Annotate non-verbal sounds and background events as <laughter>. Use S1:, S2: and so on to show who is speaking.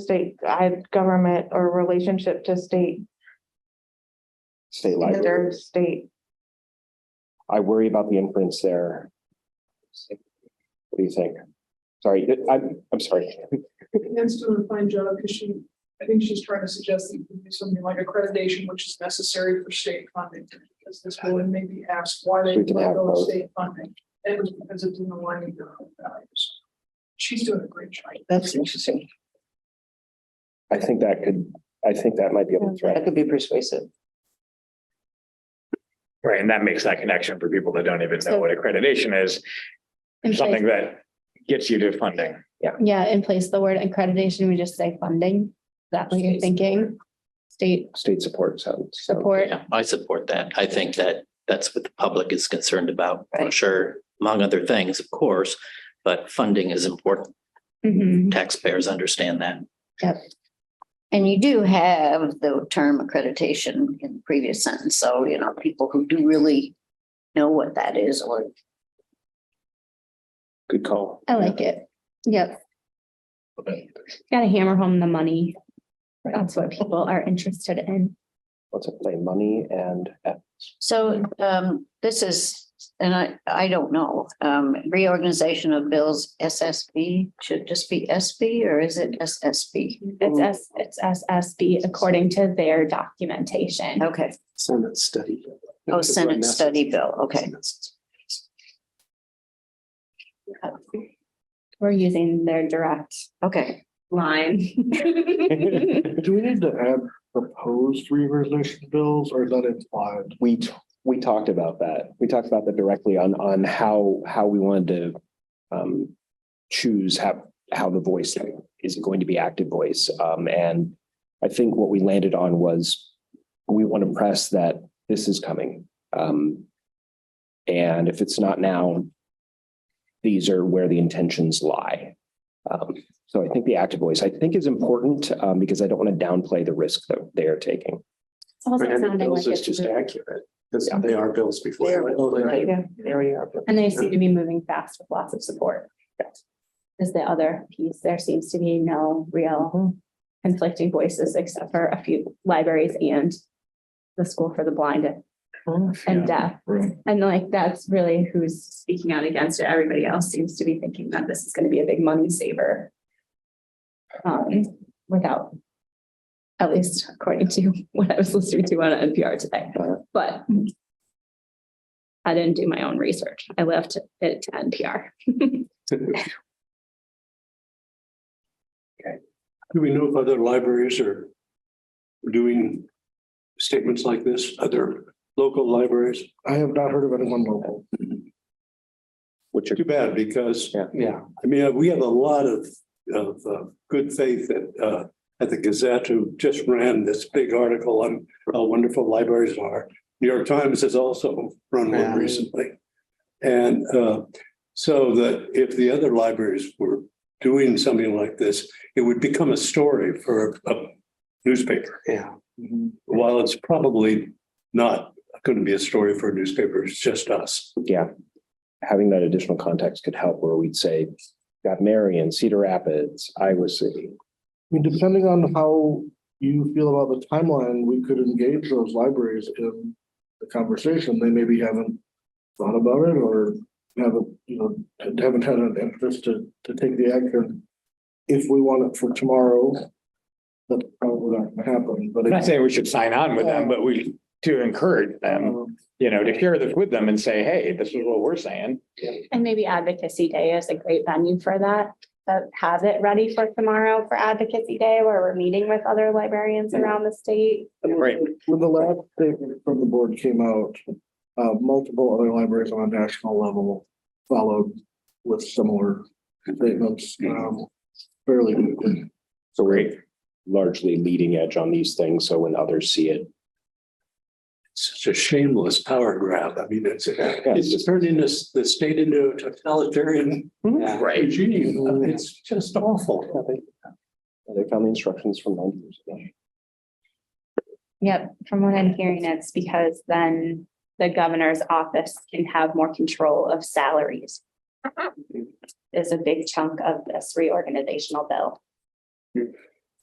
S1: state, I have government or relationship to state,
S2: state library.
S1: their state.
S2: I worry about the inference there. What do you think? Sorry, I'm, I'm sorry. <laughs>
S3: Anne's doing a fine job because she, I think she's trying to suggest that you can do something like accreditation, which is necessary for state funding. Because this will maybe ask why they
S2: We can
S3: let
S2: have
S3: go of
S2: both.
S3: state funding. And it was because it didn't align with their own values. She's doing a great job.
S4: That's interesting.
S2: I think that could, I think that might be a
S4: That
S2: threat.
S4: could be persuasive.
S5: Right, and that makes that connection for people that don't even know what accreditation is,
S6: In place,
S5: something that gets you to funding.
S6: yeah, in place of the word accreditation, we just say funding. Is That what you're
S3: State
S6: thinking? State
S2: State support sounds. so-
S6: support.
S7: Yeah, I support that. I think that that's what the public is concerned about, for
S4: Right.
S7: sure, among other things, of course. But funding is important.
S6: Mhm.
S7: Taxpayers understand that.
S8: And you do have the term accreditation in the previous sentence, so, you know, people who do really know what that is or
S2: Good call.
S6: I like it. Yep.
S5: Okay.
S6: Gotta hammer home the money. That's what people are interested in.
S2: Let's play money and ethics.
S8: So um, this is, and I, I don't know, um, reorganization of bills, SSB, should just be SB or is it SSB?
S6: It's S, it's SSB according to their documentation.
S8: Okay,
S9: Senate study.
S8: oh, Senate study bill, okay.
S6: We're using their direct
S8: Okay,
S6: line. <laughs>
S9: Do we need to add proposed reorganization bills or is that implied?
S2: We, t- we talked about that. We talked about that directly on, on how, how we wanted to um, choose how, how the voice is it going to be active voice. Um, and I think what we landed on was we want to press that this is coming. Um, and if it's not now, these are where the intentions lie. Um, so I think the active voice, I think is important, um, because I don't want to downplay the risk that they are taking.
S6: It's also
S9: Brandon
S6: sounding like
S9: bills
S6: it's
S9: is just
S6: moving.
S9: accurate, because
S2: Yeah.
S9: they are bills
S8: They are
S9: before.
S8: right.
S6: And they seem to be moving fast with lots of support. Is the other piece, there seems to be no real conflicting voices except for a few libraries and the school for the blind and deaf.
S5: Right.
S6: And like, that's really who's speaking out against it. Everybody else seems to be thinking that this is gonna be a big money saver. Um, without, at least according to <laughs> what I was listening to on NPR today, but I didn't do my own research. I left it to NPR.
S9: Do we know if other libraries are doing statements like this, other local libraries? I have not heard of anyone local.
S2: Which are
S10: Too bad, because,
S2: Yeah.
S9: Yeah.
S10: I mean, we have a lot of, of uh, good faith at, uh, at the Gazette who just ran this big article on how wonderful libraries are. New York Times has also run
S9: Yeah.
S10: one recently. And uh, so that if the other libraries were doing something like this, it would become a story for a a newspaper.
S9: Yeah.
S10: While it's probably not going to be a story for a newspaper, it's just us.
S2: yeah, having that additional context could help where we'd say, got Marion, Cedar Rapids, Iowa City.
S9: I mean, depending on how you feel about the timeline, we could engage those libraries in the conversation. They maybe haven't thought about it or haven't, you know, haven't had an interest to, to take the action. If we want it for tomorrow, that's probably not gonna happen, but.
S5: I'm not
S9: it's-
S5: saying we should sign on with them, but we, to encourage
S2: um,
S5: them,
S9: Um,
S5: you know, to share this with them and say, hey, this is what we're saying.
S6: And maybe advocacy day is a great venue for that, but have it ready for tomorrow for advocacy day where we're meeting with other librarians around the state.
S5: Right.
S9: When the last statement from the board came out, uh, multiple other libraries on a national level followed with similar statements, um, fairly quickly.
S2: So we're largely leading edge on these things. So when others see it,
S10: such a shameless power grab. I mean, it's,
S2: just-
S10: it's turning this, the state into a totalitarian uh,
S7: Right.
S10: regime. It's just awful.
S2: they found the instructions from ninety years ago.
S6: Yep, from what I'm hearing, it's because then the governor's office can have more control of salaries. Mm-hmm. Is a big chunk of this reorganizational bill.